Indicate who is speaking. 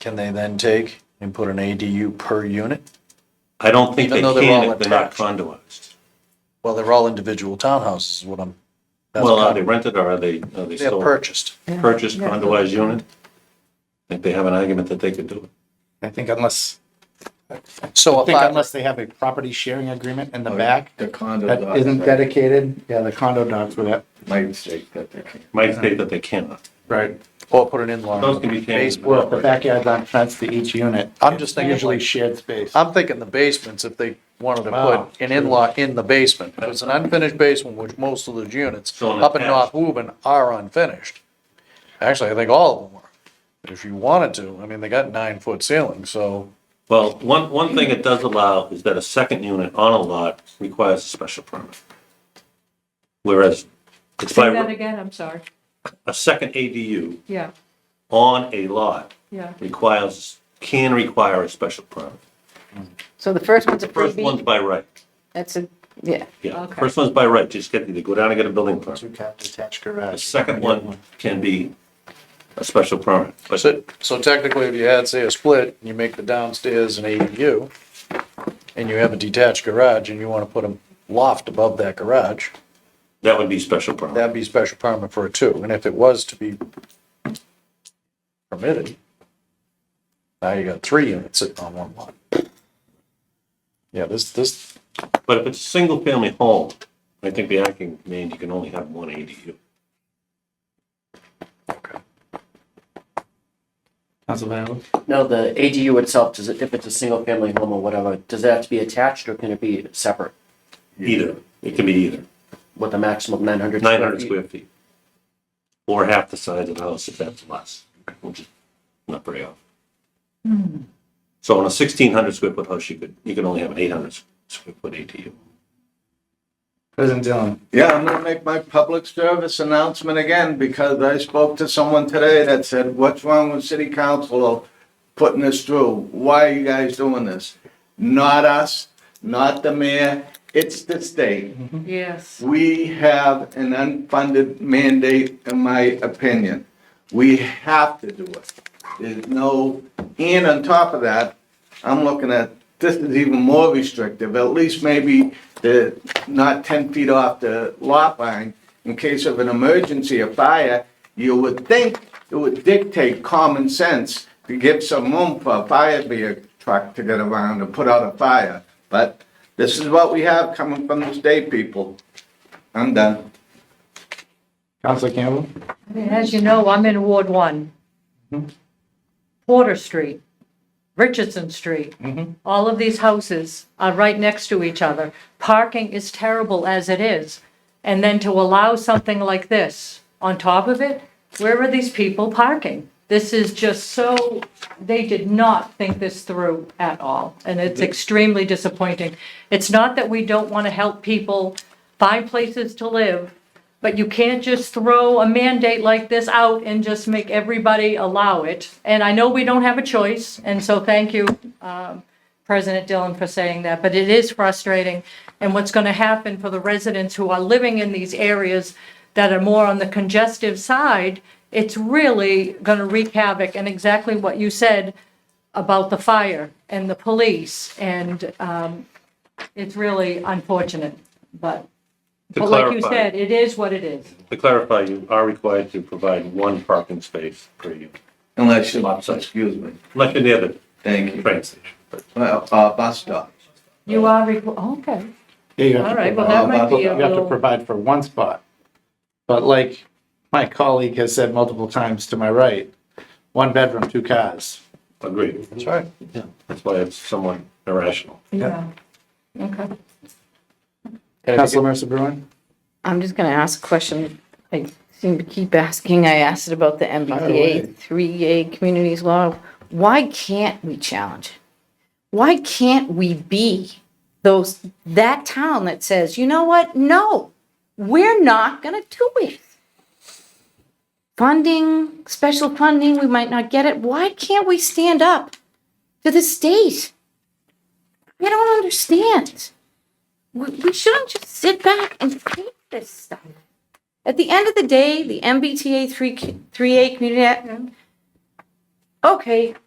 Speaker 1: can they then take and put an ADU per unit?
Speaker 2: I don't think
Speaker 1: Even
Speaker 2: they
Speaker 1: though they're
Speaker 2: can
Speaker 1: all
Speaker 2: if they're not
Speaker 1: attached.
Speaker 2: condoized.
Speaker 1: Well, they're all individual townhouses is what I'm. that's
Speaker 2: Well, uh,
Speaker 1: what
Speaker 2: are
Speaker 1: I'm-
Speaker 2: they rented or are they, are they
Speaker 1: They're
Speaker 2: still
Speaker 1: purchased.
Speaker 2: purchased condoized unit? I think they have an argument that they could do it.
Speaker 3: I think unless,
Speaker 1: So
Speaker 3: I
Speaker 1: if
Speaker 3: think
Speaker 1: I,
Speaker 3: unless they have a property sharing agreement in the
Speaker 4: Oh,
Speaker 3: back
Speaker 4: The condo
Speaker 3: that
Speaker 4: docs,
Speaker 3: isn't
Speaker 4: right?
Speaker 3: dedicated, yeah, the condo docs for that.
Speaker 4: My mistake, that they can't.
Speaker 2: Might state that they cannot.
Speaker 3: Right.
Speaker 1: or put an in-law.
Speaker 2: Those can be changed.
Speaker 1: basement.
Speaker 3: Well, if the backyard's on fence to each unit,
Speaker 1: I'm just thinking
Speaker 3: usually
Speaker 1: usually,
Speaker 3: shared space.
Speaker 1: I'm thinking the basements, if they wanted to
Speaker 3: Wow.
Speaker 1: put an in-law in the basement. If it's an unfinished basement, which most of those units
Speaker 2: So an
Speaker 1: up in North
Speaker 2: attached.
Speaker 1: Woburn are unfinished. Actually, I think all of them are. But If you wanted to, I mean, they got nine-foot ceilings, so
Speaker 2: Well, one, one thing it does allow is that a second unit on a lot requires a special permit. Whereas it's
Speaker 5: Say that
Speaker 2: by,
Speaker 5: again, I'm sorry.
Speaker 2: a second ADU
Speaker 5: Yeah,
Speaker 2: on a lot
Speaker 5: yeah.
Speaker 2: requires, can require a special permit.
Speaker 6: So the first one's a
Speaker 2: First one's
Speaker 6: freebie.
Speaker 2: by right.
Speaker 6: That's a, yeah.
Speaker 2: Yeah, the
Speaker 5: Okay.
Speaker 2: first one's by right, just get, they go down and get a building permit.
Speaker 3: Two cat detached
Speaker 2: The
Speaker 3: garage.
Speaker 2: second one can be a special permit. But
Speaker 1: So, so technically, if you had, say, a split, and you make the downstairs an ADU, and you have a detached garage, and you wanna put a loft above that garage,
Speaker 2: that would be special permit.
Speaker 1: that'd be special permit for a two, and if it was to be permitted, now you got three units sitting on one lot. Yeah, this, this,
Speaker 2: But if it's a single-family home, I think the acting means you can only have one ADU.
Speaker 7: No, the ADU itself, does it, if it's a single family home or whatever, does it have to be attached or can it be separate
Speaker 2: Either, it can be either,
Speaker 7: with a maximum of nine hundred?
Speaker 2: nine hundred square feet. Or half the size of the house if that's less, which is not very often. So on a sixteen hundred square foot house, you could, you can only have an eight hundred square foot ADU.
Speaker 3: President Dillon,
Speaker 4: Yeah, I'm gonna make my public service announcement again, because I spoke to someone today that said, what's wrong with city council putting this through? Why are you guys doing this? Not us, not the mayor, it's the state.
Speaker 5: Yes.
Speaker 4: We have an unfunded mandate, in my opinion. We have to do it. There's no, and on top of that, I'm looking at, this is even more restrictive, at least maybe the, not ten feet off the lot line. In case of an emergency, a fire, you would think it would dictate common sense to give some room for a fire vehicle truck to get around and put out a fire. But this is what we have coming from the state people. I'm done.
Speaker 3: Counselor Campbell?
Speaker 5: As you know, I'm in Ward One. Porter Street, Richardson Street. All of these houses are right next to each other. Parking is terrible as it is. And then to allow something like this on top of it, where are these people parking? This is just so, they did not think this through at all. And it's extremely disappointing. It's not that we don't want to help people find places to live, but you can't just throw a mandate like this out and just make everybody allow it. And I know we don't have a choice, and so thank you, um, President Dillon, for saying that, but it is frustrating. And what's going to happen for the residents who are living in these areas that are more on the congestive side, it's really going to wreak havoc. And exactly what you said about the fire and the police, and um, it's really unfortunate, but
Speaker 2: To
Speaker 5: but like you
Speaker 2: clarify-
Speaker 5: said, it is what it is.
Speaker 2: To clarify, you are required to provide one parking space per unit,
Speaker 4: Unless you,
Speaker 2: Lots of-
Speaker 4: excuse me,
Speaker 2: unless you're near the
Speaker 4: thank you.
Speaker 2: train station.
Speaker 4: Uh, uh, bus stop.
Speaker 5: You are, requ- oh, okay,
Speaker 3: Yeah, you have to
Speaker 5: all right, well,
Speaker 3: provide-
Speaker 5: that might be a
Speaker 3: You Uh, have to
Speaker 5: little,
Speaker 3: provide for one spot. But like my colleague has said multiple times to my right, one bedroom, two cars.
Speaker 2: Agreed.
Speaker 1: that's right.
Speaker 2: That's why it's somewhat irrational.
Speaker 5: yeah, okay.
Speaker 3: Counselor Mercer Bruin?
Speaker 6: I'm just gonna ask a question. I seem to keep asking. I asked it about the MBTA three A communities law. Why can't we challenge it? Why can't we be those, that town that says, you know what? No, we're not gonna do it. Funding, special funding, we might not get it. Why can't we stand up to the state? I don't understand we, we shouldn't just sit back and take this stuff. At the end of the day, the MBTA 3, 3A community, Act- okay,